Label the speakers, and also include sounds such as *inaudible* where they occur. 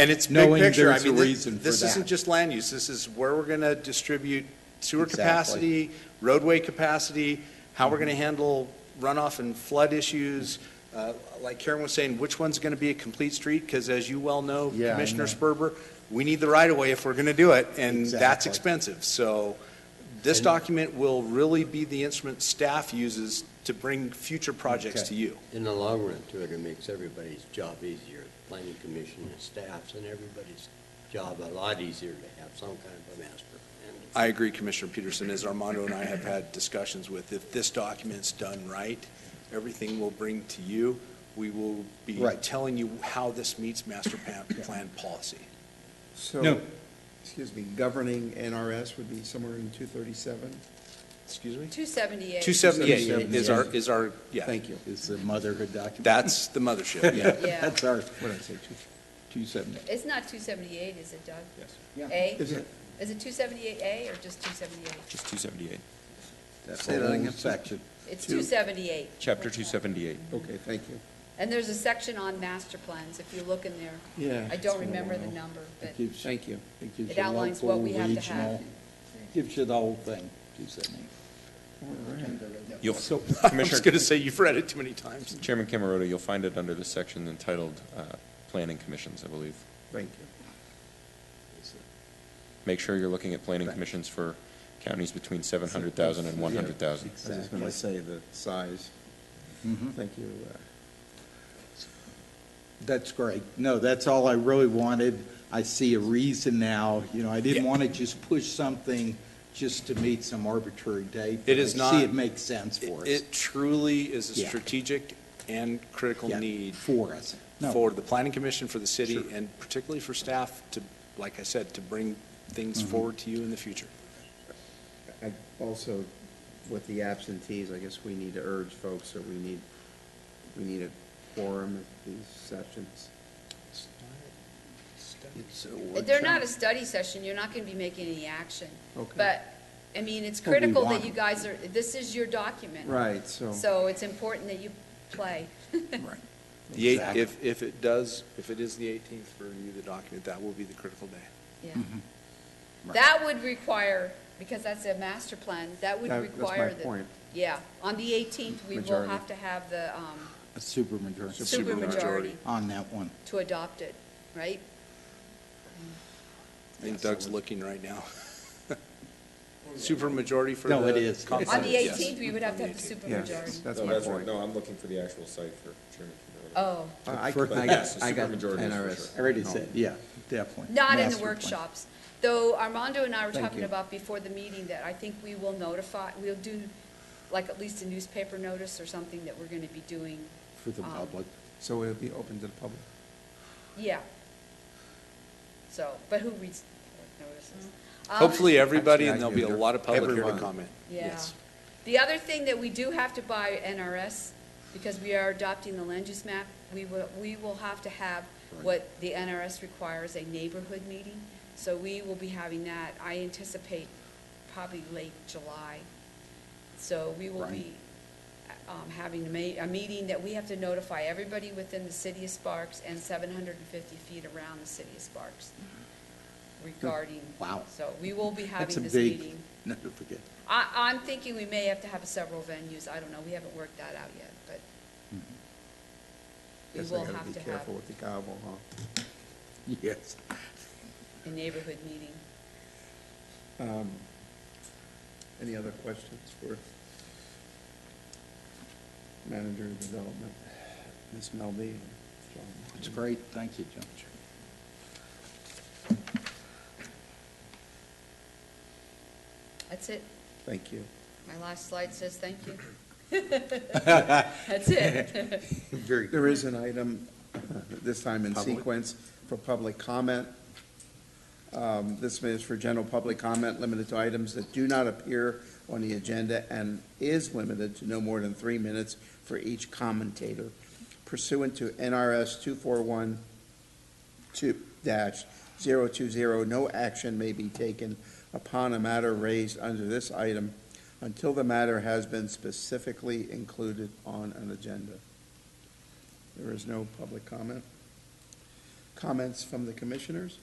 Speaker 1: And it's big
Speaker 2: knowing
Speaker 1: picture. I
Speaker 2: there's a
Speaker 1: mean, thi-
Speaker 2: reason for
Speaker 1: This isn't
Speaker 2: that.
Speaker 1: just land use, this is where we're going to distribute sewer
Speaker 2: Exactly. Mm-hmm.
Speaker 1: capacity, roadway capacity, how we're going to handle runoff and flood issues. Uh, Like Karen was saying, which one's going to be a complete street? Because as you well know,
Speaker 2: Yeah, I
Speaker 1: Commissioner
Speaker 2: know.
Speaker 1: Sperber, we need the right-of-way if we're going to do it, and that's
Speaker 2: Exactly.
Speaker 1: expensive. So this
Speaker 2: And-
Speaker 1: document will really be the instrument staff uses to bring future projects
Speaker 2: Okay.
Speaker 1: to you.
Speaker 3: In the long run, too, it makes everybody's job easier, planning commission and staffs and everybody's job a lot easier to have some kind of a master plan.
Speaker 1: I agree, Commissioner Peterson, as Armando and I have had discussions with, if this document's done right, everything we'll bring to you, we will be
Speaker 2: Right.
Speaker 1: telling you how this meets master plan, plan policy.
Speaker 2: No.
Speaker 4: So, excuse me, governing NRS would be somewhere in 237?
Speaker 1: Excuse me?
Speaker 5: 278.
Speaker 1: 278 is our, is our, yeah,
Speaker 4: Thank you.
Speaker 2: Is the motherhood document?
Speaker 1: that's the mothership.
Speaker 2: Yeah,
Speaker 5: Yeah.
Speaker 2: that's ours.
Speaker 4: What did I say,
Speaker 2: 270.
Speaker 5: It's not 278, is it, Doug?
Speaker 2: Yes.
Speaker 5: A?
Speaker 4: Is it?
Speaker 5: Is it 278A or just 278?
Speaker 6: Just 278,
Speaker 2: That's
Speaker 4: Say that
Speaker 2: the whole
Speaker 4: again.
Speaker 2: section.
Speaker 5: It's
Speaker 4: Two.
Speaker 5: 278.
Speaker 6: Chapter 278.
Speaker 4: two? Okay, thank you.
Speaker 5: And there's a section on master plans, if you look in there.
Speaker 4: Yeah.
Speaker 5: I
Speaker 2: It's
Speaker 5: don't
Speaker 2: been a
Speaker 5: remember the
Speaker 2: while.
Speaker 5: number, but
Speaker 2: It gives-
Speaker 4: Thank you.
Speaker 2: It gives
Speaker 5: It
Speaker 2: you
Speaker 5: outlines what
Speaker 2: local,
Speaker 5: we have to have.
Speaker 2: regional, gives you the whole thing, 270.
Speaker 6: You'll,
Speaker 1: I was
Speaker 6: *laughs* Commissioner,
Speaker 1: going to say, you've read it too many times.
Speaker 6: Chairman Camerota, you'll find it under the section entitled uh, Planning Commissions, I believe.
Speaker 4: Thank
Speaker 6: Make sure you're looking at planning
Speaker 2: Right.
Speaker 6: commissions for counties between 700,000 and 100,000.
Speaker 4: I was just gonna
Speaker 2: say the size. Thank you. That's great. No, that's all I really wanted. I see a reason now, you know, I didn't
Speaker 1: Yeah.
Speaker 2: want to just push something just to meet some arbitrary date.
Speaker 1: It is
Speaker 2: but I
Speaker 1: not-
Speaker 2: See, it makes sense for us.
Speaker 1: It truly is a
Speaker 2: Yeah.
Speaker 1: strategic and critical
Speaker 2: Yeah,
Speaker 1: need
Speaker 2: For us. No,
Speaker 1: for the planning commission, for the city, and particularly for staff to, like I said, to bring things
Speaker 2: Mm-hmm.
Speaker 1: forward to you in the future.
Speaker 7: uh, I Also, with the absentees, I guess we need to urge folks that we need, we need a quorum at these sessions.
Speaker 5: *laughs* they're not a study session, you're not going to be making any action.
Speaker 7: Okay.
Speaker 5: But, I mean, it's
Speaker 2: Well, we
Speaker 5: critical that
Speaker 2: want-
Speaker 5: you guys are, this is your document.
Speaker 7: Right, so.
Speaker 5: So it's important that you play.
Speaker 2: Right.
Speaker 1: The eight,
Speaker 2: Exactly.
Speaker 1: if, if it does, if it is the 18th for you, the document, that will be the critical day.
Speaker 5: Yeah.
Speaker 2: Right.
Speaker 5: That would require, because that's a master plan, that would
Speaker 7: That- that's my
Speaker 5: require the.
Speaker 7: point.
Speaker 5: Yeah, on the 18th, we will
Speaker 7: Majority.
Speaker 5: have to have the um,
Speaker 2: A supermajority
Speaker 5: supermajority
Speaker 2: on that one.
Speaker 5: to adopt it, right?
Speaker 1: I think Doug's looking right now. *laughs* Supermajority for the.
Speaker 2: No, it is.
Speaker 1: comp
Speaker 5: On
Speaker 1: plan,
Speaker 5: the
Speaker 1: yes.
Speaker 5: 18th, we would have to have the
Speaker 7: Yes,
Speaker 5: supermajority.
Speaker 7: that's my point.
Speaker 6: I'm looking for the actual site for Chairman
Speaker 5: Oh,
Speaker 7: I I
Speaker 2: But
Speaker 7: got, I
Speaker 6: yes,
Speaker 7: got
Speaker 6: supermajority is for
Speaker 7: NRS.
Speaker 6: sure.
Speaker 2: I already said, yeah, definitely.
Speaker 5: not in
Speaker 2: Master
Speaker 5: the
Speaker 2: plan.
Speaker 5: workshops. Though Armando and I were
Speaker 7: Thank
Speaker 5: talking
Speaker 7: you.
Speaker 5: about before the meeting that I think we will notify, we'll do like at least a newspaper notice or something that we're going to be doing.
Speaker 2: For the
Speaker 5: um,
Speaker 2: public.
Speaker 7: So it'll be open to the public.
Speaker 5: Yeah. So, but who reads public notices? Um,
Speaker 1: Hopefully, everybody,
Speaker 7: Actually,
Speaker 1: and
Speaker 7: I
Speaker 1: there'll be a
Speaker 7: do.
Speaker 1: lot of public here to
Speaker 7: Everyone.
Speaker 1: comment.
Speaker 5: Yeah.
Speaker 1: Yes.
Speaker 5: The other thing that we do have to buy NRS, because we are adopting the land use map, we will, we will have to have what the NRS requires, a neighborhood meeting. So we will be having that, I anticipate probably late July. So we will be, um, having a ma- a meeting that we have to notify everybody within the city of Sparks and seven hundred and fifty feet around the city of Sparks regarding.
Speaker 2: Mm-hmm. Wow.
Speaker 5: So we will be
Speaker 2: That's a
Speaker 5: having this
Speaker 2: big
Speaker 5: meeting.
Speaker 2: notification.
Speaker 5: I, I'm thinking we may have to have several venues, I don't know, we haven't worked that out yet, but we
Speaker 7: Guess I
Speaker 5: will
Speaker 7: gotta
Speaker 5: have
Speaker 7: be
Speaker 5: to have
Speaker 7: careful with the gobble, huh?
Speaker 2: *laughs* Yes.
Speaker 5: a neighborhood meeting.
Speaker 7: Um, Any other questions for manager of development, Ms. Melby?
Speaker 2: It's great, thank you, John.
Speaker 5: That's it,
Speaker 7: Thank you.
Speaker 5: my last slide says thank you.
Speaker 7: *laughs*
Speaker 5: *laughs* That's it. *laughs*
Speaker 2: Very
Speaker 7: There is an item, uh, this time in
Speaker 2: Public.
Speaker 7: sequence, for public comment. Um, This is for general public comment, limited to items that do not appear on the agenda and is limited to no more than three minutes for each commentator pursuant to NRS 241 dash zero two zero, no action may be taken upon a matter raised under this item until the matter has been specifically included on an agenda. There is no public comment. Comments from the commissioners?